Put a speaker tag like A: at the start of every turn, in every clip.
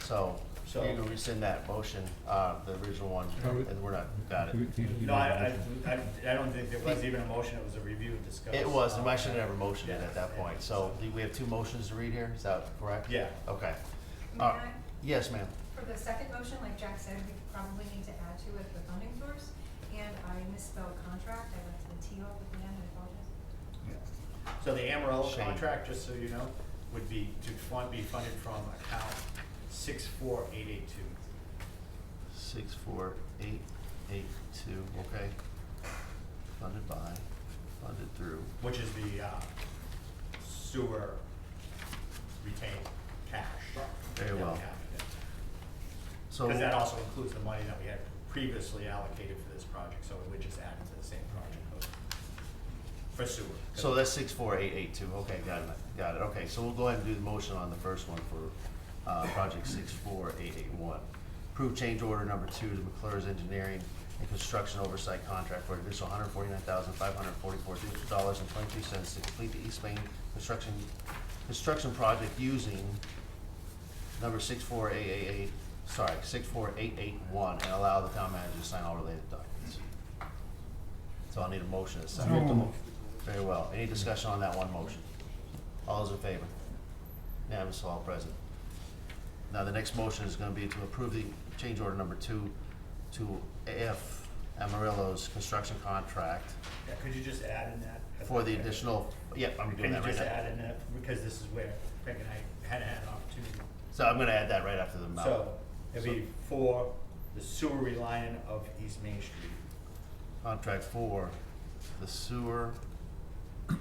A: So you
B: So-
A: can rescind that motion, uh, the original one,
C: I would-
A: and we're not, got it.
B: No, I, I, I- I don't think there was even a motion, it was a review and discuss.
A: It was, and I
B: Um,
A: should have never motioned it at that
B: Yeah.
A: point. So do we have two motions to read here, is that correct?
B: Yeah.
A: Okay.
D: May
A: Uh,
D: I?
A: Yes, ma'am.
D: For the second motion, like Jack said, we probably need to add to it the funding source, and I misspelled contract, I went to the T O with the N, I apologize.
B: So the Amarillo
A: Shame.
B: contract, just so you know, would be to fund, be funded from account six four eight eight two.
A: Six, four, eight, eight, two, okay. Funded by, funded through.
B: which is the uh, sewer retained cash.
A: Very well. So,
B: Because that also includes the money that we had previously allocated for this project, so it would just add it to the same project code for sewer.
A: so that's six, four, eight, eight, two, okay, got it, got it, okay. So we'll go ahead and do the motion on the first one for, uh, project six, four, eight, eight, one. Approve change order number two to McClure's Engineering and Construction Oversight Contract for an additional hundred forty-nine thousand, five hundred forty-four dollars and twenty-two cents to complete the East Main construction, construction project using number six four eight eight eight, sorry, six four eight eight one, and allow the town manager to sign all related documents. So I'll need a motion and a second. Very well. Any discussion on that one motion? All those in favor? Unanimous, all present. Now, the next motion is gonna be to approve the change order number two to AF Amarillo's construction contract
B: Yeah, Could you just add in that?
A: for the additional, yep, I'm doing
B: Can you
A: that right
B: just
A: now.
B: add in that, because this is where Craig and I had had an opportunity.
A: So I'm gonna add that right after the mouth.
B: So it'd be for the sewer relining of East Main Street,
A: Contract for the sewer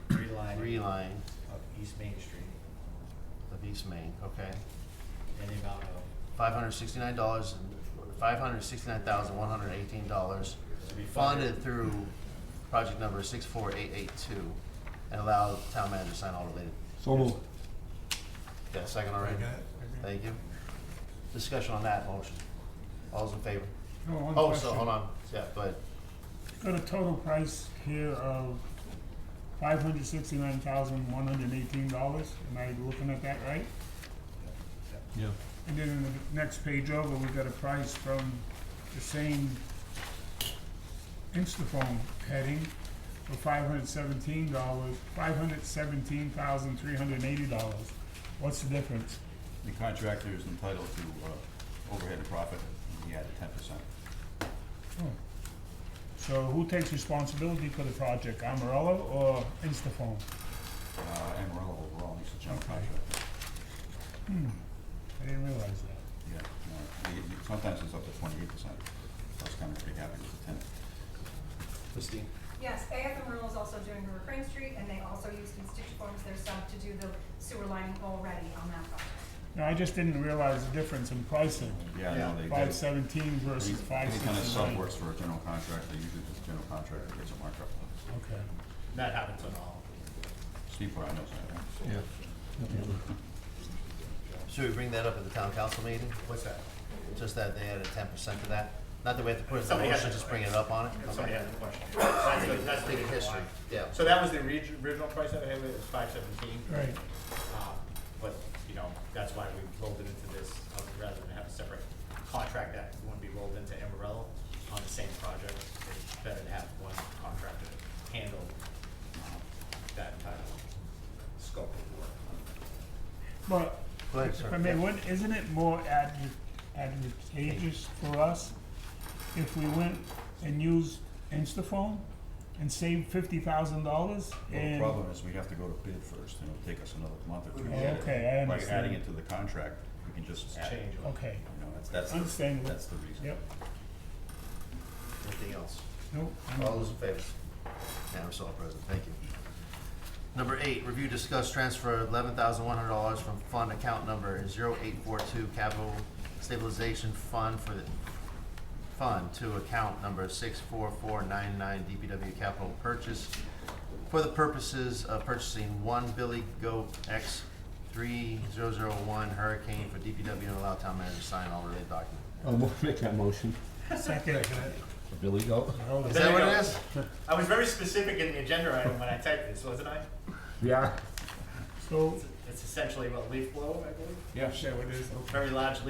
B: relining
A: reline
B: of East Main Street.
A: of East Main, okay?
B: in the amount of,
A: Five hundred sixty-nine dollars, five hundred sixty-nine thousand, one hundred eighteen dollars,
B: to be funded.
A: funded through project number six four eight eight two, and allow the town manager to sign all related.
C: So moved.
A: Got a second already? Thank you. Discussion on that motion. All's in favor?
E: No, one
A: Oh, so,
E: question.
A: hold on, yeah, go ahead.
E: Got a total price here of five hundred sixty-nine thousand, one hundred eighteen dollars. Am I looking at that right?
C: Yeah.
E: And then in the next page over, we got a price from the same Instaphone heading for five hundred seventeen dollars, five hundred seventeen thousand, three hundred eighty dollars. What's the difference?
F: The contractor is entitled to uh, overhead and profit, and he had a ten percent.
E: Oh. So who takes responsibility for the project, Amarillo or Instaphone?
F: Amarillo overall, he's a general contractor.
E: I didn't realize that.
F: Yeah. no, he- he- Sometimes it's up to twenty-eight percent. I was kind of pretty happy with the ten.
A: Christine?
D: Yes, AF and Rural is also doing the Refrain Street, and they also use constituents, their sub, to do the sewer lining already on that project.
E: No, I just didn't realize the difference in pricing,
F: Yeah, no, they
E: five
F: did.
E: seventeen
F: Any
E: versus five
F: any kind of sub
E: sixty-nine.
F: works for a general contractor, usually this general contractor gets a markup.
E: Okay.
B: That happens on all.
F: Steve probably knows that, right?
C: Yeah.
A: Should we bring that up at the town council meeting?
B: What's that?
A: Just that they added ten percent to that? Not that we have to put it in the
B: Somebody has
A: motion,
B: to-
A: just bring it up on it?
B: If
A: Okay.
B: somebody has a question. That's the- that's the
A: Take a
B: reason
A: history,
B: why.
A: yeah.
B: So that was the orig- original price that I had, it was five seventeen. Um,
E: Right.
B: But, you know, that's why we rolled it into this, uh, rather than have a separate contract that wouldn't be rolled into Amarillo on the same project. It's better to have one contractor handle um, that entire scope of work.
E: But,
A: Go ahead,
E: if
A: sir.
E: I mean,
A: Yeah.
E: would isn't it more advan- advantageous for us if we went and used Instaphone and saved fifty thousand dollars?
F: Well, the
E: And
F: problem is we have to go to bid first, and it'll take us another month or two. to
E: Oh,
F: get it.
E: okay, I
F: By
E: understand.
F: adding it to the contract, we can just add, it,
B: Change. order.
E: Okay,
F: you know, that's, that's, the-
E: Understandable.
F: that's the reason.
E: yep,
A: Anything else?
E: nope. I'm-
A: All those in favor? Unanimous, all present, thank you. Number eight, review, discuss, transfer eleven thousand one hundred dollars from fund account number zero eight four two capital stabilization fund for the, fund to account number six four four nine nine DPW capital purchase for the purposes of purchasing one Billy Goat X three zero zero one Hurricane for DPW and allow town manager to sign all related documents.
C: I'll mo- make that motion.
E: Second,
C: Billy Goat?
E: hold
A: Is
E: it.
B: There
A: that
B: you
A: what it
B: go.
A: is?
B: I was very specific in the agenda item when I typed this, wasn't I?
C: Yeah.
E: so,
B: It's essentially what leaf blow, I believe,
F: Yeah.
E: yeah, what is, okay.
B: very large leaf